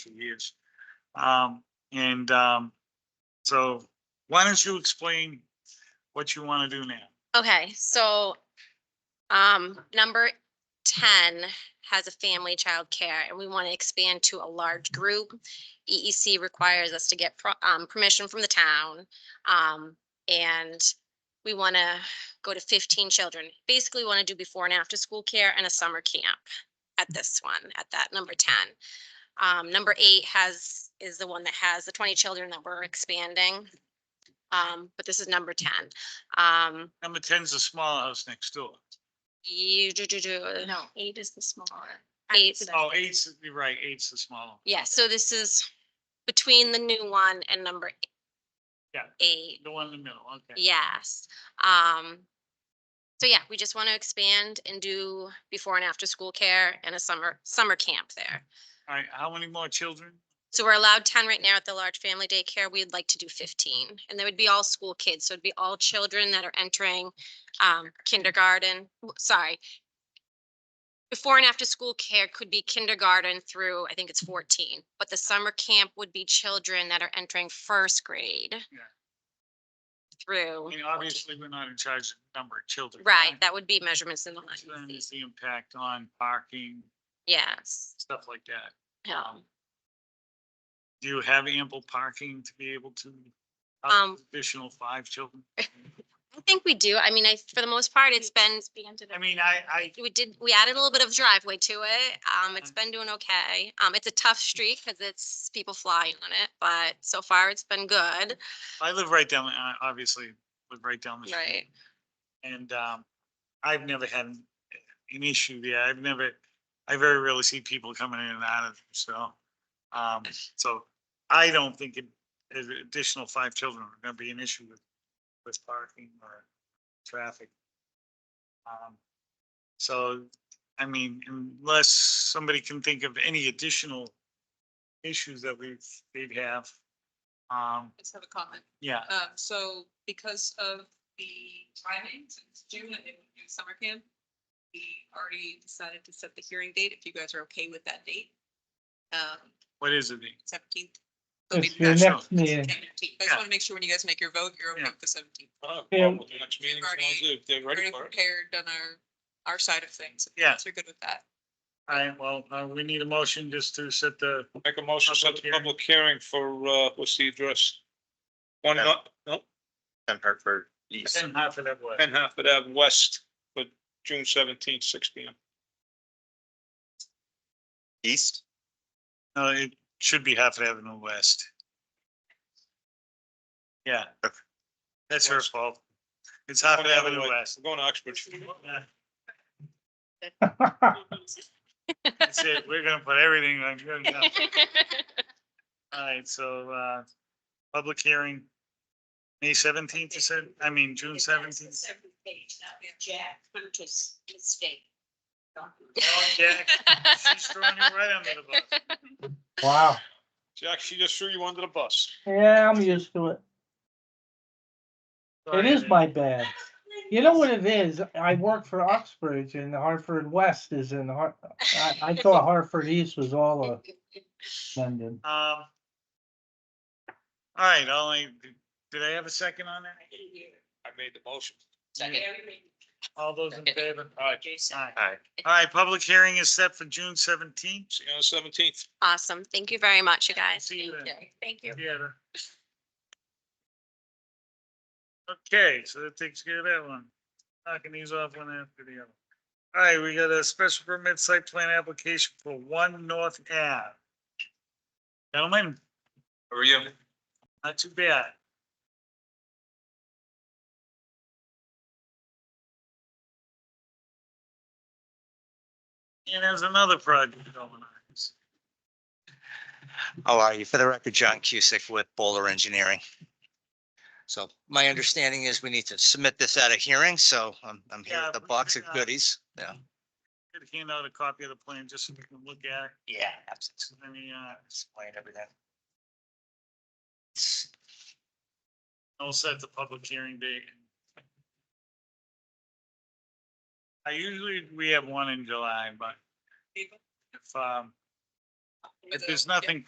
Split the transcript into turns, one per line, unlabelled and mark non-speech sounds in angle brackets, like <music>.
for years. Um, and, um, so why don't you explain what you want to do now?
Okay, so, um, number ten has a family child care, and we want to expand to a large group. EEC requires us to get pro- um, permission from the town, um, and we want to go to fifteen children. Basically, want to do before and after school care and a summer camp at this one, at that number ten. Um, number eight has, is the one that has the twenty children that we're expanding. Um, but this is number ten. Um,
Number ten's the small house next door.
you E, do, do, do.
No, eight is the smaller.
Eight's-
accident.
Oh, eight's, you're right, eight's the small.
Yeah, so this is between the new one and number. e-
Yeah.
Eight,
The one in the middle, okay.
yes. Um, so yeah, we just want to expand and do before and after school care and a summer, summer camp there.
All right, how many more children?
So we're allowed ten right now at the large family daycare. We'd like to do fifteen. And they would be all school kids, so it'd be all children that are entering um kindergarten, w- sorry. Before and after school care could be kindergarten through, I think it's fourteen, but the summer camp would be children that are entering first grade.
Yeah. I
Through,
mean, obviously, we're not in charge of the number of children.
right, that would be measurements in the
Then
line.
is the impact on parking,
Yes, Um,
stuff like that.
yeah.
Do you have ample parking to be able to? house
Um,
Additional five children?
I think we do. I mean, I, for the most part, it's been
Expanded
I mean, I, I,
we did, we added a little bit of driveway to it. Um, it's
Mm.
been doing okay. Um, it's a tough street because it's people flying on it, but so far it's been good.
I live right down, I obviously live right down the street.
Right.
And um, I've never had an an issue there. I've never, I very rarely see people coming in and out of, so. Um, so I don't think it- an additional five children are gonna be an issue with, with parking or traffic. Um, So, I mean, unless somebody can think of any additional issues that we've, they'd have. Um,
Let's have a comment.
yeah,
Um, so because of the timing, since June and it would be summer camp, we already decided to set the hearing date, if you guys are okay with that date. Um,
what is it?
seventeenth.
It's your
<laughs>
next meeting.
I just
Yeah.
want to make sure when you guys make your vote, you're okay
Yeah.
with the seventeenth.
Oh,
Yeah.
well, the next meeting,
Already-
sounds good. If they're ready
Already
for it.
prepared, done our, our side of things.
Yeah.
So you're good with that.
All right, well, uh, we need a motion just to set the
Make a motion, to set the
Public
public hearing for, uh, what's the address? One, uh, oh,
Yeah.
no, no,
and Hartford East.
ten half of that way.
ten Halford Ave West, but June seventeenth, six P M.
East?
No, uh, it should be half of Avenue West. Yeah.
Okay.
That's her fault. It's half of Avenue West.
We're going to Oxford.
That's it. We're gonna put everything on. good <laughs> enough. All right, so, uh, public hearing, May seventeenth, you said, I mean, June seventeenth.
Page, that was Jack Hunter's mistake.
Yeah, she's throwing you right under the bus.
Wow.
Jack, she just threw you under the bus.
Yeah, I'm used to it. It is my bad. You know what it is? I work for Uxbridge and Hartford West is in Har- I, I thought Hartford East was all of London.
Um. All right, only, did I have a second on that?
I made the motion.
All those in favor?
All right,
Jason.
Aye.
Hi.
All right, public hearing is set for June seventeenth.
see you on the seventeenth.
Awesome. Thank you very much, you guys.
See you then.
Thank you.
Yeah. Okay, so that takes care of that one. Knocking these off one after the other. All right, we got a special permit site plan application for One North Ave. Gentlemen,
How are you?
not too bad. And there's another project going on.
How are you? For the record, John Cusick with Bowler Engineering. So my understanding is we need to submit this at a hearing, so I'm, I'm here
Yeah,
with a
we-
box of
yeah.
goodies. Yeah.
Could hand out a copy of the plan just so we can look at it.
Yeah, absolutely.
So Any, uh,
Explain everything.
I'll set the public hearing date. I usually, we have one in July, but if, um, if there's
So, yeah.
nothing